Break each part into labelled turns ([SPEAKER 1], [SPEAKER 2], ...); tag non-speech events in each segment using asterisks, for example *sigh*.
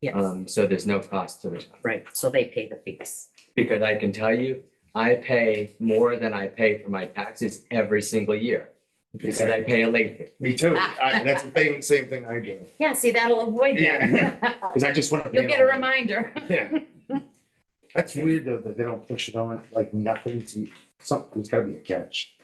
[SPEAKER 1] Yes,
[SPEAKER 2] Um, so there's no cost to the town.
[SPEAKER 1] right. So they pay the fees.
[SPEAKER 2] Because I can tell you, I pay more than I pay for my taxes every single year. Because I pay a late fee.
[SPEAKER 3] Me too.
[SPEAKER 1] Ah.
[SPEAKER 3] I, that's the thing, same thing I do,
[SPEAKER 1] Yeah, see, that'll avoid that.
[SPEAKER 3] because I just want to.
[SPEAKER 1] *laughs* Ah. You'll get
[SPEAKER 2] *laughs*
[SPEAKER 1] a reminder.
[SPEAKER 3] Yeah. That's weird though, that they don't push it on like nothing to, something's gotta be a catch.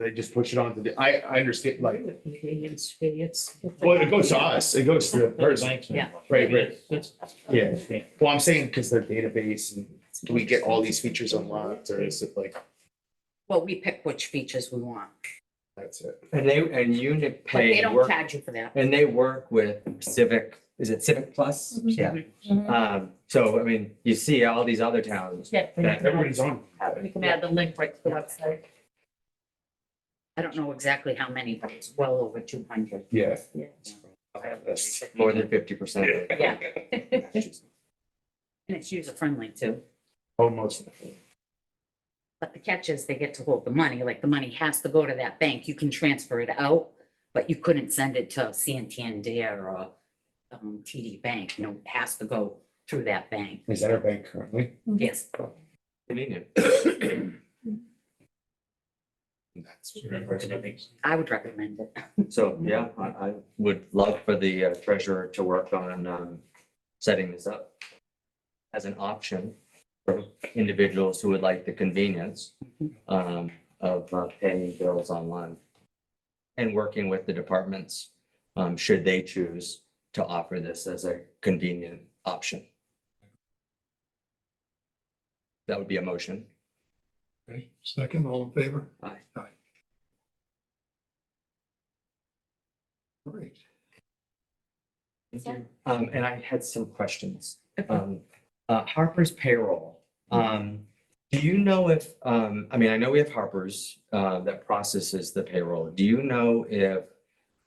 [SPEAKER 3] They just push it on to the, I, I understand, like,
[SPEAKER 1] Convenience fee, it's.
[SPEAKER 3] well, it goes to us, it goes to the person.
[SPEAKER 1] Yeah.
[SPEAKER 3] Right, right.
[SPEAKER 4] That's-
[SPEAKER 3] Yeah. Well, I'm saying because their database and do we get all these features unlocked or is it like,
[SPEAKER 1] Well, we pick which features we want,
[SPEAKER 3] that's it?
[SPEAKER 2] And they, and unit
[SPEAKER 1] but they
[SPEAKER 2] pay
[SPEAKER 1] don't
[SPEAKER 2] work,
[SPEAKER 1] charge you for that.
[SPEAKER 2] and they work with Civic, is it Civic Plus?
[SPEAKER 1] Mm-hmm.
[SPEAKER 2] Yeah. Um, so I mean, you see all these other towns.
[SPEAKER 5] Yeah, we
[SPEAKER 2] that-
[SPEAKER 5] can
[SPEAKER 3] Everybody's on.
[SPEAKER 5] add- we can add the link right to the website.
[SPEAKER 1] I don't know exactly how many, but it's well over two hundred.
[SPEAKER 3] Yeah.
[SPEAKER 5] Yeah.
[SPEAKER 3] That's-
[SPEAKER 2] More than fifty percent.
[SPEAKER 1] Yeah. And it's user friendly too.
[SPEAKER 3] *laughs* Almost.
[SPEAKER 1] But the catch is they get to hold the money, like the money has to go to that bank. You can transfer it out, but you couldn't send it to Santander or um, TD Bank, you know, it has to go through that bank.
[SPEAKER 3] Is that our bank currently?
[SPEAKER 1] Yes,
[SPEAKER 2] Convenient.
[SPEAKER 3] That's.
[SPEAKER 1] I would recommend it.
[SPEAKER 2] So, yeah, I, I would love for the uh, treasurer to work on, um, setting this up as an option for individuals who would like the convenience, um, of uh, paying bills online and working with the departments, um, should they choose to offer this as a convenient option. That would be a motion.
[SPEAKER 6] Okay, second, all in favor?
[SPEAKER 2] Aye.
[SPEAKER 6] Aye. All right.
[SPEAKER 2] Um, and I had some questions. Um, uh, Harper's payroll. Um, do you know if, um, I mean, I know we have Harper's, uh, that processes the payroll. Do you know if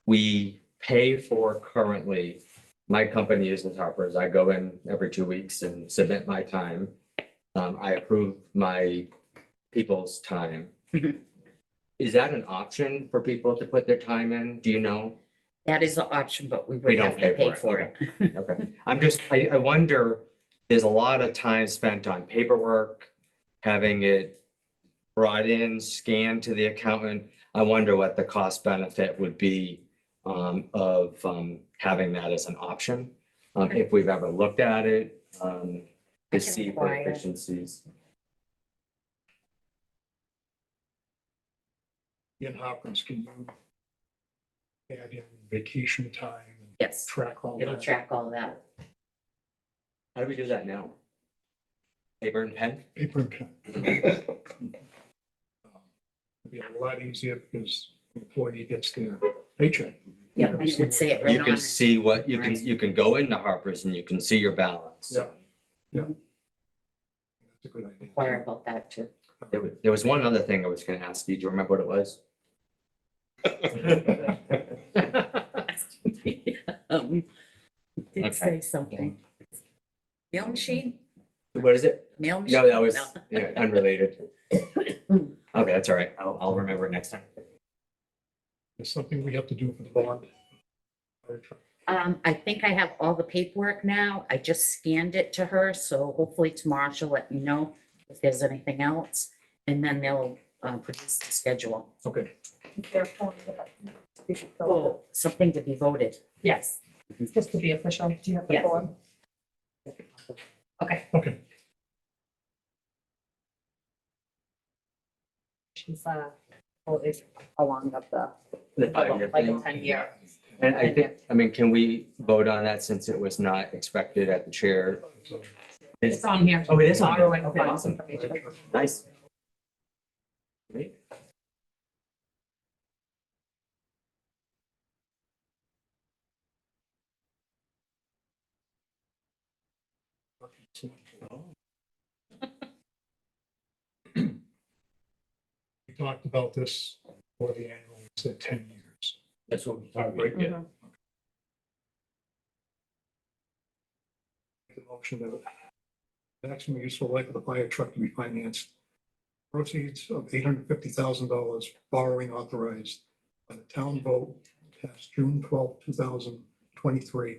[SPEAKER 2] we pay for currently, my company uses Harper's. I go in every two weeks and submit my time. Um, I approve my people's time.
[SPEAKER 1] Mhm.
[SPEAKER 2] Is that an option for people to put their time in? Do you know?
[SPEAKER 1] That is an option, but we
[SPEAKER 2] We
[SPEAKER 1] would
[SPEAKER 2] don't
[SPEAKER 1] have to pay for it.
[SPEAKER 2] Okay, I'm just, I, I wonder, there's a lot of time spent on paperwork, having it brought in, scanned to the accountant. I wonder what the cost benefit would be um, of, um, having that as an option. Um, if we've ever looked at it, um, to
[SPEAKER 1] I can
[SPEAKER 2] see for
[SPEAKER 1] inquire.
[SPEAKER 2] efficiencies.
[SPEAKER 6] Ian Hopkins, can you add in vacation time and
[SPEAKER 1] Yes,
[SPEAKER 6] track all
[SPEAKER 1] it'll
[SPEAKER 6] that?
[SPEAKER 1] track all that.
[SPEAKER 2] How do we do that now? Paper and pen?
[SPEAKER 6] Paper and pen. It'd be a lot easier because the employee gets their paycheck.
[SPEAKER 1] Yeah, and it would say it right
[SPEAKER 2] You
[SPEAKER 1] on.
[SPEAKER 2] can
[SPEAKER 1] it.
[SPEAKER 2] see what, you can,
[SPEAKER 1] Right.
[SPEAKER 2] you can go into Harper's and you can see your balance.
[SPEAKER 6] Yeah, yeah. That's a good idea.
[SPEAKER 1] Inquire about that too.
[SPEAKER 2] There was, there was one other thing I was gonna ask you. Do you remember what it was?
[SPEAKER 1] *laughs* Um,
[SPEAKER 2] Okay.
[SPEAKER 1] Did say something. Mail machine,
[SPEAKER 2] What is it?
[SPEAKER 1] mail machine.
[SPEAKER 2] No, that was yeah, unrelated. Okay, that's all right. I'll, I'll remember it next time.
[SPEAKER 6] It's something we have to do for the bond.
[SPEAKER 1] Um, I think I have all the paperwork now. I just scanned it to her, so hopefully tomorrow she'll let me know if there's anything else. And then they'll, uh, produce the schedule.
[SPEAKER 6] Okay.
[SPEAKER 5] Therefore, we should fill
[SPEAKER 1] Oh, something to be voted.
[SPEAKER 5] it. Yes, just to be official, do you have the
[SPEAKER 1] Yes.
[SPEAKER 5] form? Okay.
[SPEAKER 6] Okay.
[SPEAKER 5] She's, uh, well, it's along of the,
[SPEAKER 2] The five-year
[SPEAKER 5] like a
[SPEAKER 2] thing.
[SPEAKER 5] ten year.
[SPEAKER 2] And I think, I mean, can we vote on that since it was not expected at the chair?
[SPEAKER 5] It's on here.
[SPEAKER 2] Oh, it is on there.
[SPEAKER 5] Borrowing
[SPEAKER 2] Okay,
[SPEAKER 5] funds
[SPEAKER 2] awesome.
[SPEAKER 5] information.
[SPEAKER 2] Nice.
[SPEAKER 6] We talked about this for the annual, it's at ten years.
[SPEAKER 4] That's what we
[SPEAKER 6] Right,
[SPEAKER 4] talked
[SPEAKER 1] Mm-hmm.
[SPEAKER 4] about.
[SPEAKER 5] Mhm.
[SPEAKER 6] The motion that the maximum useful life of the fire truck to be financed. Proceeds of eight hundred fifty thousand dollars borrowing authorized by the town vote passed June twelfth, two thousand twenty-three